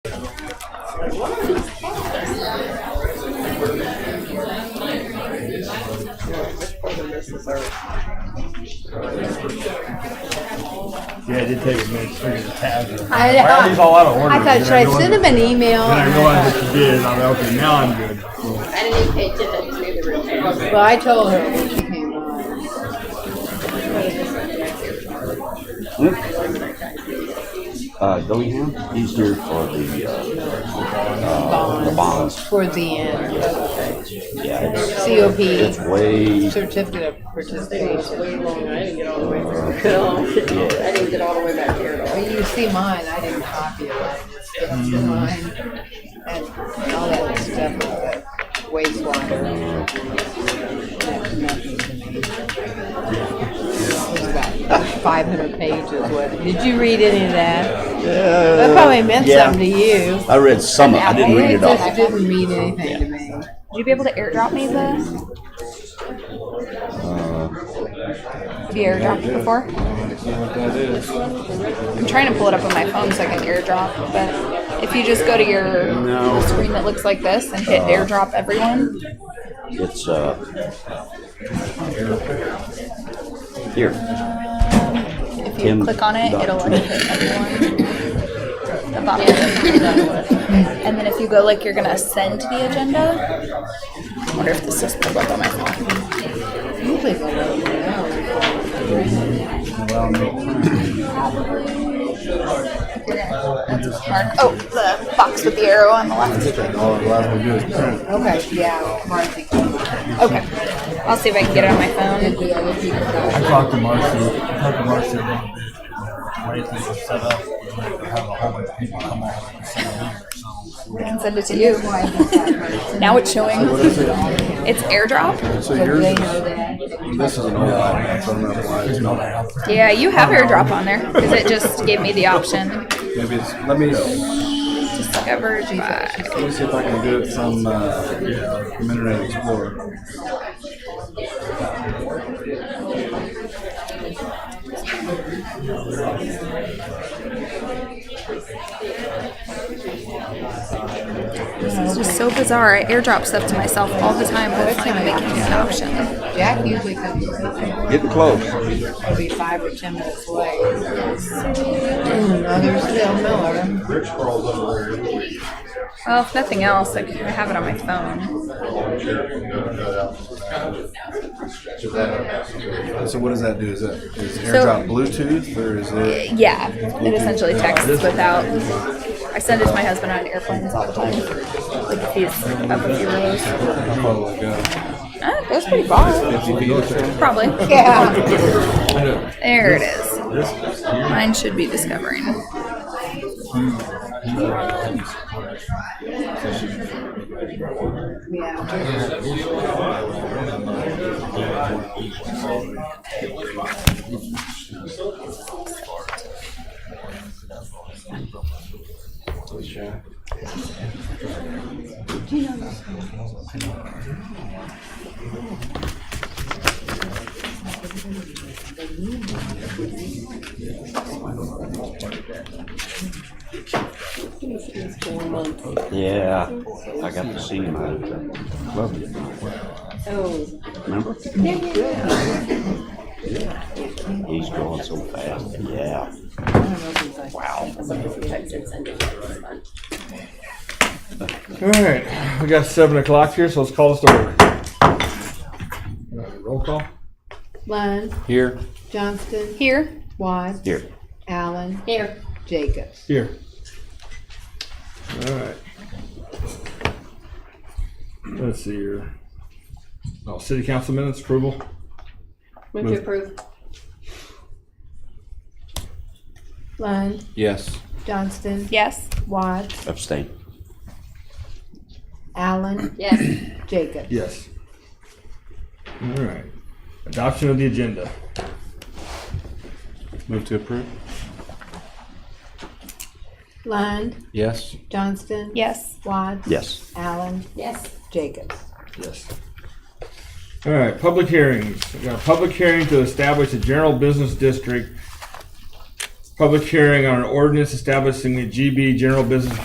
figured the tabs are. I Why are these know. all out of order? I thought, And should I realized- send him an email? Then I realized that you did, I'm like, okay, now I'm good. I didn't even pay attention. I just made the room. Well, I told her when she came on. Luke? Uh, Dillingham, he's here for the, uh, uh, the bonds. Towards the end, Yeah, it's, it's COP, way, certificate of participation. Way long. I didn't get all the way. through. I didn't get all the way back here at all. Well, you see mine, I didn't copy it, I just did Mm. mine. And all that stuff, that wastewater. That's nothing to me. It's about five hundred pages, what, did you read any of that? That probably meant Uh, yeah. something to you. I read some of it, I didn't read it just all. didn't mean anything to me. Would you be able to airdrop me the? Have you airdropped before? I'm trying to pull it up on my phone so I can airdrop, but if you just go to your screen that looks like this and Uh, hit airdrop everyone, It's, uh, here. if you Tim click on it, dot it'll com. like hit everyone. The bottom. and then if you go like you're gonna ascend the agenda. I wonder if this is pulled up on my phone. Usually they let me know. You're gonna- that's mark- Oh, the box with the arrow on the left. All I'm glad we do is print. Okay, yeah, Marcy. Okay. I'll see if I can get it on my phone. The other people got- I talked to Marcy, I talked to Marcy about the way things are set up, we might have a whole bunch of people come on and see them, so. I can send it to you. Why is that? Now it's showing. It's airdrop. So But yours, they is- know that. this is an old one, that's on that line. Yeah, you have airdrop on there because it just gave me the option. Maybe it's, let me, let Discovered by. me see if I can do it from, uh, from Internet Explorer. This is just so bizarre. I airdrop stuff to myself all the time, but it's not even making me an option. Jack usually comes, with Getting close. me. it'll be five or ten minutes late. No, there's still Miller. Well, if nothing else, I could- I have it on my phone. So what does that do? Is that, is So- AirDrop Bluetooth or is it? Yeah, it essentially texts without. I send it to my husband on airplanes all the time. Like if he's up a few rows. How far will it go? Ah, that's pretty far. Fifty feet or so? Probably. Yeah. There it is. Mine should be discovering. Yeah. Yeah, I got to see him out at the club. Remember? Yeah. He's going so fast, yeah. Alright, we got seven o'clock here, so let's call this over. Uh, Roll call? Lund, Here. Johnston, Here. Watts, Here. Allen, Here. Jacobs. Here. Alright. Let's see here. Oh, city council minutes approval? Move to approve. Lund, Yes. Johnston, Yes. Watts, Abstain. Allen, Yes. Jacobs. Yes. Alright. Adoption of the agenda. Move to approve? Lund, Yes. Johnston, Yes. Watts, Yes. Allen, Yes. Jacobs. Yes. All right, public hearings. We got a public hearing to establish a general business district. Public hearing on an ordinance establishing the GB General Business